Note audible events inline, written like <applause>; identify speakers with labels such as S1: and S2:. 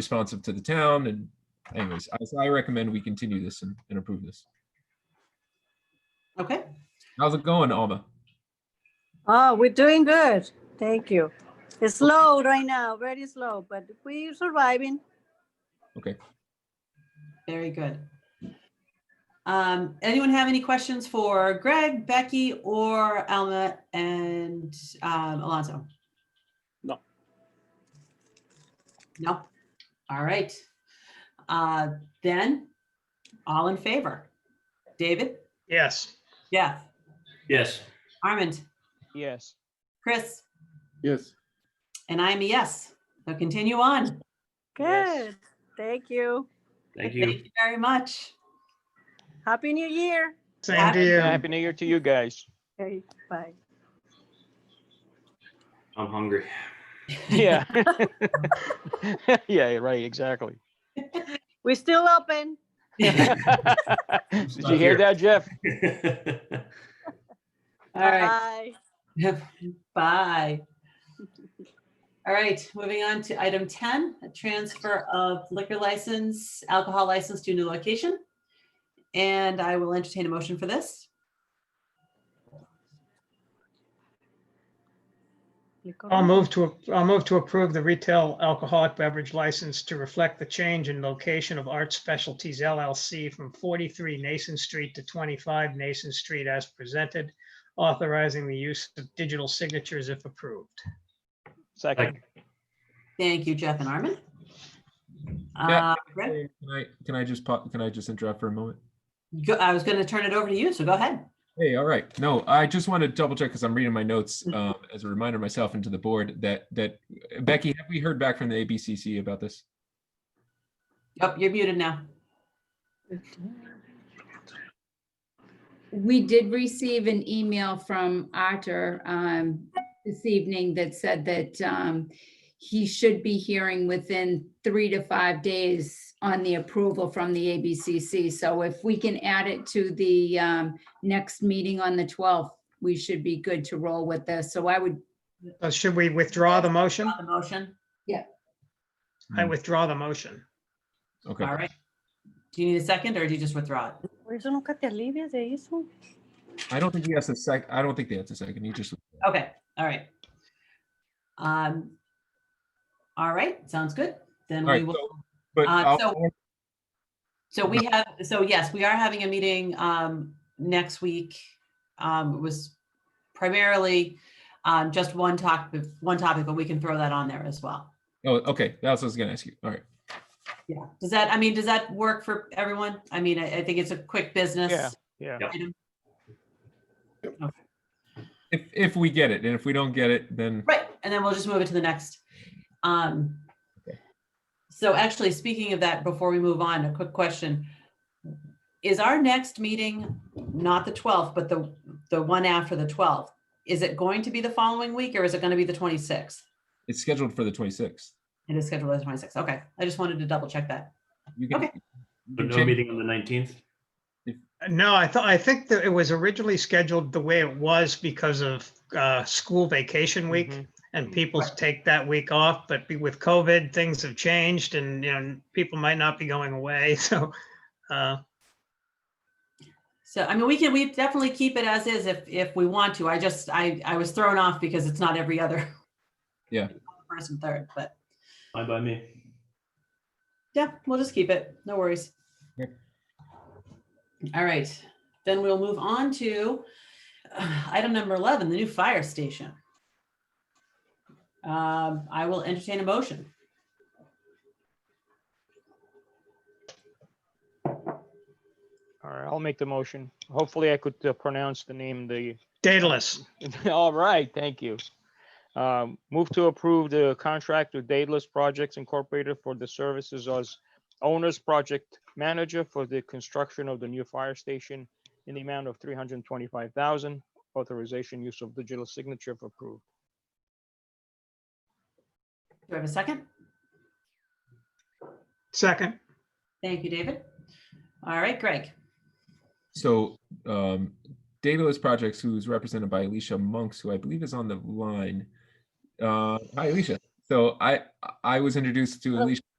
S1: responsive to the town and anyways, I- so I recommend we continue this and, and approve this.
S2: Okay,
S1: How's it going, Alma?
S3: Oh, we're doing good. Thank you. It's slow right now, very slow, but we're surviving.
S2: very good. Um, anyone have any questions for Greg, Becky, or Alma and um, Alonso?
S4: No.
S2: No. All right. Uh, then, all in favor? David,
S4: Yes.
S2: Jeff,
S5: Yes,
S2: Armand,
S6: Yes,
S2: Chris,
S7: Yes,
S2: and I'm a yes. So continue on.
S6: Yes.
S3: Good. Thank you.
S5: thank
S2: Thank
S5: you.
S2: you very much.
S3: Happy New Year.
S4: Same to you.
S6: happy new year to you guys.
S3: Okay, bye.
S5: I'm hungry. <laughs>
S6: Yeah. <laughs> Yeah, right, exactly.
S3: We're still open.
S6: Did you hear that, Jeff?
S2: <laughs> All right.
S3: Bye.
S2: <laughs> Bye. All right, moving on to item 10, a transfer of liquor license, alcohol license to new location. And I will entertain a motion for this.
S4: I'll move to, I'll move to approve the retail alcoholic beverage license to reflect the change in location of Art Specialties LLC from 43 Nason Street to 25 Nason Street as presented, authorizing the use of digital signatures if approved.
S6: Second,
S2: Thank you, Jeff and Armin.
S1: Yeah.
S2: Uh, Greg,
S1: Can I, can I just, pop- can I just interrupt for a moment?
S2: go- I was going to turn it over to you, so go ahead.
S1: Hey, all right. No, I just want to double check because I'm reading my notes
S2: Mm-hmm.
S1: um, as a reminder myself and to the board that, that Becky, have we heard back from the ABCC about this?
S2: Yep, you're muted now.
S8: We did receive an email from Arthur um, this evening that said that um, he should be hearing within three to five days on the approval from the ABCC. So if we can add it to the um, next meeting on the 12th, we should be good to roll with this. So I would,
S4: So Uh, Should we withdraw the motion?
S2: Got The motion,
S4: I withdraw the motion.
S1: Okay.
S2: all right. Do you need a second or do you just withdraw it?
S3: Por isso nunca te alivias de isso.
S1: I don't think he has a sec, I don't think they have a second. He just,
S2: Okay, all right. Um, all right, sounds good. Then
S1: All
S2: we
S1: right,
S2: will,
S1: but
S2: Uh,
S1: I'll-
S2: so- so we have, so yes, we are having a meeting, um, next week. Um, it was primarily, um, just one talk, one topic, but we can throw that on there as well.
S1: oh, okay. That's what I was gonna ask you. All right.
S2: Yeah, does that, I mean, does that work for everyone? I mean, I, I think it's a quick business.
S6: yeah.
S2: item.
S1: If, if we get it and if we don't get it, then
S2: Right, and then we'll just move it to the next. Um,
S1: Okay.
S2: so actually, speaking of that, before we move on, a quick question. Is our next meeting, not the twelfth, but the, the one after the twelfth, is it going to be the following week or is it gonna be the twenty-sixth?
S1: it's scheduled for the 26th.
S2: It is scheduled as twenty-sixth, okay, I just wanted to double check that.
S1: You can.
S2: Okay.
S1: you
S5: But
S1: can
S5: no
S1: change-
S5: meeting on the nineteenth?
S4: No, I thought, I think that it was originally scheduled the way it was because of uh, school vacation week.
S6: Mhm.
S4: and people take that week off, but be- with COVID, things have changed and, you know, people might not be going away, <laughs> so. uh,
S2: So, I mean, we can, we definitely keep it as is if, if we want to, I just, I, I was thrown off because it's not every other. <laughs>
S1: Yeah.
S2: First and third, but
S5: Bye by me.
S2: Yeah, we'll just keep it. No worries.
S1: Yep.
S2: All right, then we'll move on to uh, item number 11, the new fire station. Um, I will entertain a motion.
S6: All right, I'll make the motion. Hopefully I could uh, pronounce the name, the, <laughs>
S4: Daedalus,
S6: all right, thank you. Um, Move to approve the contract with Daedalus Projects Incorporated for the services as owner's project manager for the construction of the new fire station in the amount of three hundred and twenty-five thousand, authorization use of digital signature if approved.
S2: Do I have a second?
S4: second.
S2: Thank you, David. All right, Greg.
S1: So um, Daedalus Projects, who's represented by Alicia Monks, who I believe is on the line. Uh, hi, Alicia. So I I was introduced to
S3: Hello.
S1: Alicia